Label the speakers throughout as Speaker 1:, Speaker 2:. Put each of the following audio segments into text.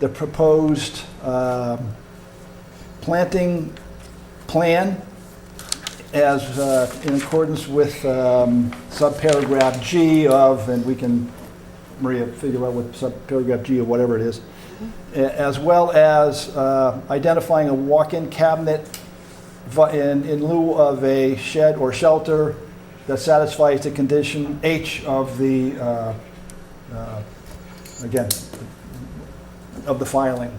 Speaker 1: the proposed um, planting plan as uh, in accordance with um, subparagraph G of, and we can, Maria, figure out what subparagraph G or whatever it is, a- as well as uh, identifying a walk-in cabinet vi- in in lieu of a shed or shelter that satisfies the condition H of the, uh, uh, again, of the filing.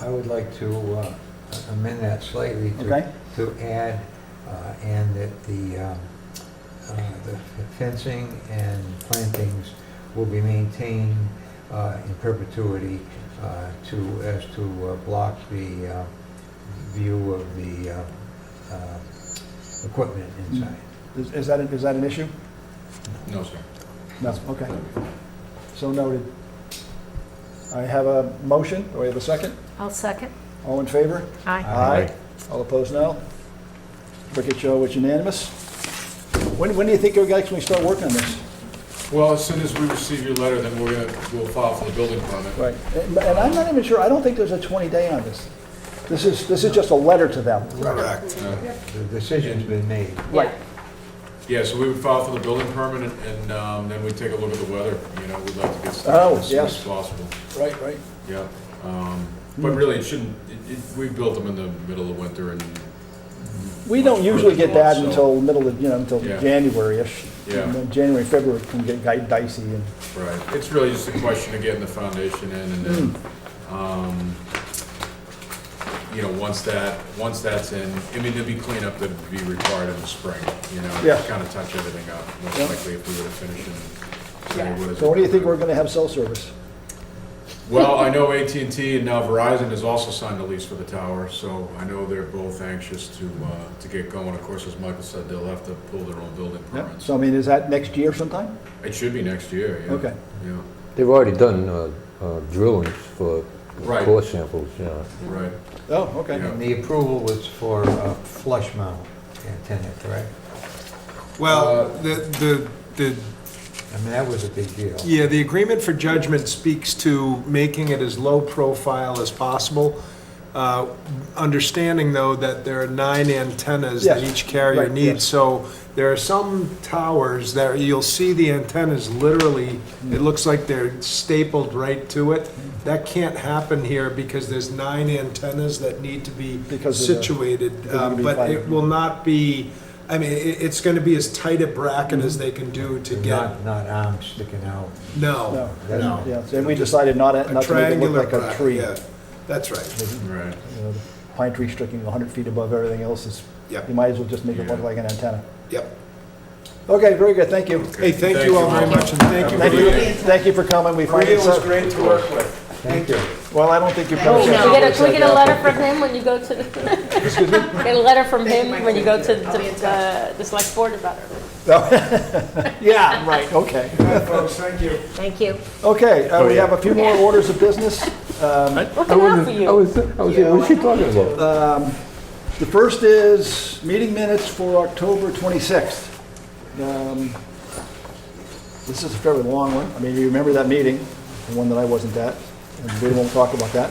Speaker 2: I would like to uh, amend that slightly to-
Speaker 1: Okay.
Speaker 2: to add, uh, and that the um, uh, the fencing and plantings will be maintained uh, in perpetuity uh, to, as to uh, block the uh, view of the uh, uh, equipment inside.
Speaker 1: Is is that, is that an issue?
Speaker 3: No, sir.
Speaker 1: No, okay. So noted. I have a motion, do I have a second?
Speaker 4: I'll second.
Speaker 1: All in favor?
Speaker 4: Aye.
Speaker 3: Aye.
Speaker 1: All opposed, no? Cricket show is unanimous. When, when do you think you'll actually start working on this?
Speaker 3: Well, as soon as we receive your letter, then we're gonna, we'll file for the building permit.
Speaker 1: Right. And and I'm not even sure, I don't think there's a 20-day on this. This is, this is just a letter to them.
Speaker 2: Correct.
Speaker 3: Uh,
Speaker 2: The decision's been made.
Speaker 1: Right.
Speaker 3: Yeah, so we would file for the building permit, and- and um, then we take a look at the weather, you know, we'd like to get
Speaker 1: Oh,
Speaker 3: started as soon
Speaker 1: yes.
Speaker 3: as possible.
Speaker 1: Right, right.
Speaker 3: Yeah, um, but really, it shouldn't, it- it- we built them in the middle of winter, and,
Speaker 1: We don't usually get that until middle of, you know, until
Speaker 3: Yeah.
Speaker 1: January-ish.
Speaker 3: Yeah.
Speaker 1: And then January, February can get guy- dicey and,
Speaker 3: right, it's really just a question of getting the foundation in, and then, um, you know, once that, once that's in, I mean, there'd be cleanup that'd be required in the spring, you know?
Speaker 1: Yeah.
Speaker 3: Kind of touch everything up, most
Speaker 1: Yeah.
Speaker 3: likely if we were to finish it. say, what is
Speaker 1: so what do you think
Speaker 3: it?
Speaker 1: we're going to have cell service?
Speaker 3: Well, I know at and t and now Verizon has also signed a lease for the tower, so I know they're both anxious to, uh, to get going. Of course, as Michael said, they'll have to pull their own building permits.
Speaker 1: So I mean, is that next year sometime?
Speaker 3: It should be next year, yeah.
Speaker 1: Okay.
Speaker 3: Yeah,
Speaker 5: They've already done uh, uh, drillings for
Speaker 3: Right.
Speaker 5: core samples, you know.
Speaker 3: right.
Speaker 1: Oh, okay.
Speaker 3: Yeah.
Speaker 2: And the approval was for uh, flush mount antenna, correct?
Speaker 3: Uh,
Speaker 6: Well, the, the, the,
Speaker 2: I mean, that was a big deal.
Speaker 6: yeah, the agreement for judgment speaks to making it as low profile as possible. Uh, Understanding, though, that there are nine antennas that
Speaker 1: Yes,
Speaker 6: each carrier
Speaker 1: right,
Speaker 6: needs.
Speaker 1: yes.
Speaker 6: So there are some towers that you'll see the antennas literally, it looks like they're stapled right to it. That can't happen here because there's nine antennas that need to be
Speaker 1: Because of the-
Speaker 6: situated.
Speaker 1: of the
Speaker 6: um, But it
Speaker 1: fiber.
Speaker 6: will not be, I mean, it, it's gonna be as tight a bracket as they can do to get
Speaker 2: Not, not arms sticking out.
Speaker 1: No.
Speaker 6: No,
Speaker 2: That's
Speaker 6: no.
Speaker 1: Yeah, so we decided not,
Speaker 6: A
Speaker 1: not to make it
Speaker 6: triangular
Speaker 1: look like a
Speaker 6: bracket,
Speaker 1: tree. Mm-hmm.
Speaker 6: yeah. That's right.
Speaker 3: Right.
Speaker 1: You know, the Pine tree sticking 100 feet above everything else is,
Speaker 6: Yep.
Speaker 1: you might as well just make it look
Speaker 3: Yeah.
Speaker 1: like an antenna.
Speaker 6: Yep.
Speaker 1: Okay, very good, thank you.
Speaker 6: Hey, thank you all very much, and thank you.
Speaker 1: Thank you, thank you for coming, we find
Speaker 6: Maria
Speaker 1: it
Speaker 6: was
Speaker 1: so,
Speaker 6: great to work with.
Speaker 2: Thank you.
Speaker 1: well, I don't think you've come.
Speaker 4: Oh, no.
Speaker 1: since-
Speaker 7: Can we get a, can we get a letter from him when you go to, the get a letter from him when you go to the, uh, the select board about it?
Speaker 1: Yeah, right, okay.
Speaker 6: Hi, folks, thank you.
Speaker 4: Thank you.
Speaker 1: Okay, uh, we have a few more orders of business. Um,
Speaker 7: What can I help for
Speaker 5: I
Speaker 7: you?
Speaker 5: was, I was, what is she talking about?
Speaker 1: The first is meeting minutes for October 26th. Um, This is a fairly long one. I mean, you remember that meeting, the one that I wasn't at, and we won't talk about that.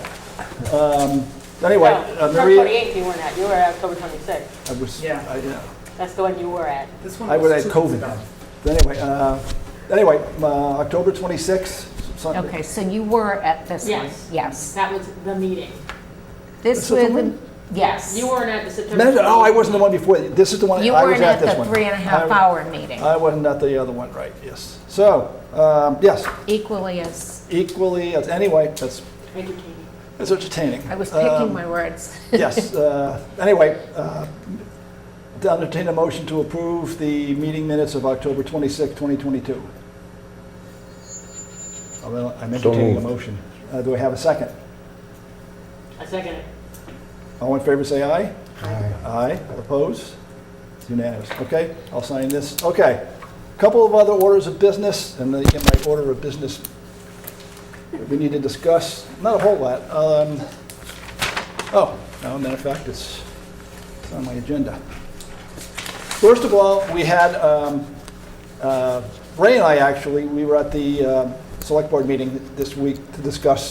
Speaker 1: Um, Anyway, uh,
Speaker 7: October
Speaker 1: Maria,
Speaker 7: 28th you weren't at, you were at October 26th.
Speaker 1: I was, I- yeah,
Speaker 7: That's the one you were at.
Speaker 1: I would add COVID. But Anyway, uh, anyway, uh, October 26th, Sunday.
Speaker 4: Okay, so you were at this one?
Speaker 7: Yes.
Speaker 4: Yes.
Speaker 7: That was the meeting.
Speaker 1: This
Speaker 4: This
Speaker 1: is the
Speaker 4: was,
Speaker 1: one?
Speaker 4: yes.
Speaker 7: You weren't at the September.
Speaker 1: Minute- Oh, I
Speaker 7: 28th.
Speaker 1: wasn't the one before, this is the one,
Speaker 4: You
Speaker 1: I was
Speaker 4: weren't
Speaker 1: at
Speaker 4: at
Speaker 1: this
Speaker 4: the
Speaker 1: one.
Speaker 4: three and a half
Speaker 1: I-
Speaker 4: hour meeting,
Speaker 1: I wasn't at the other one, right, yes. So, um, yes,
Speaker 4: equally as,
Speaker 1: equally, as anyway, that's
Speaker 7: Thank you, Katie.
Speaker 1: It's entertaining.
Speaker 4: I was picking
Speaker 1: Um,
Speaker 4: my words.
Speaker 1: Yes, uh, anyway, uh, to entertain a motion to approve the meeting minutes of October 26, 2022. I'm en- I'm
Speaker 5: So
Speaker 1: entertaining a
Speaker 5: moved.
Speaker 1: motion. Uh, Do I have a second?
Speaker 7: I second it.
Speaker 1: All in favor, say aye.
Speaker 2: Aye.
Speaker 1: Aye, All opposed? It's unanimous. Okay, I'll sign this. Okay. Couple of other orders of business, and the- in my order of business, we need to discuss, not a whole lot. Um, Oh, no, matter of fact, it's it's on my agenda. First of all, we had, um, uh, Ray and I actually, we were at the um, select board meeting this week to discuss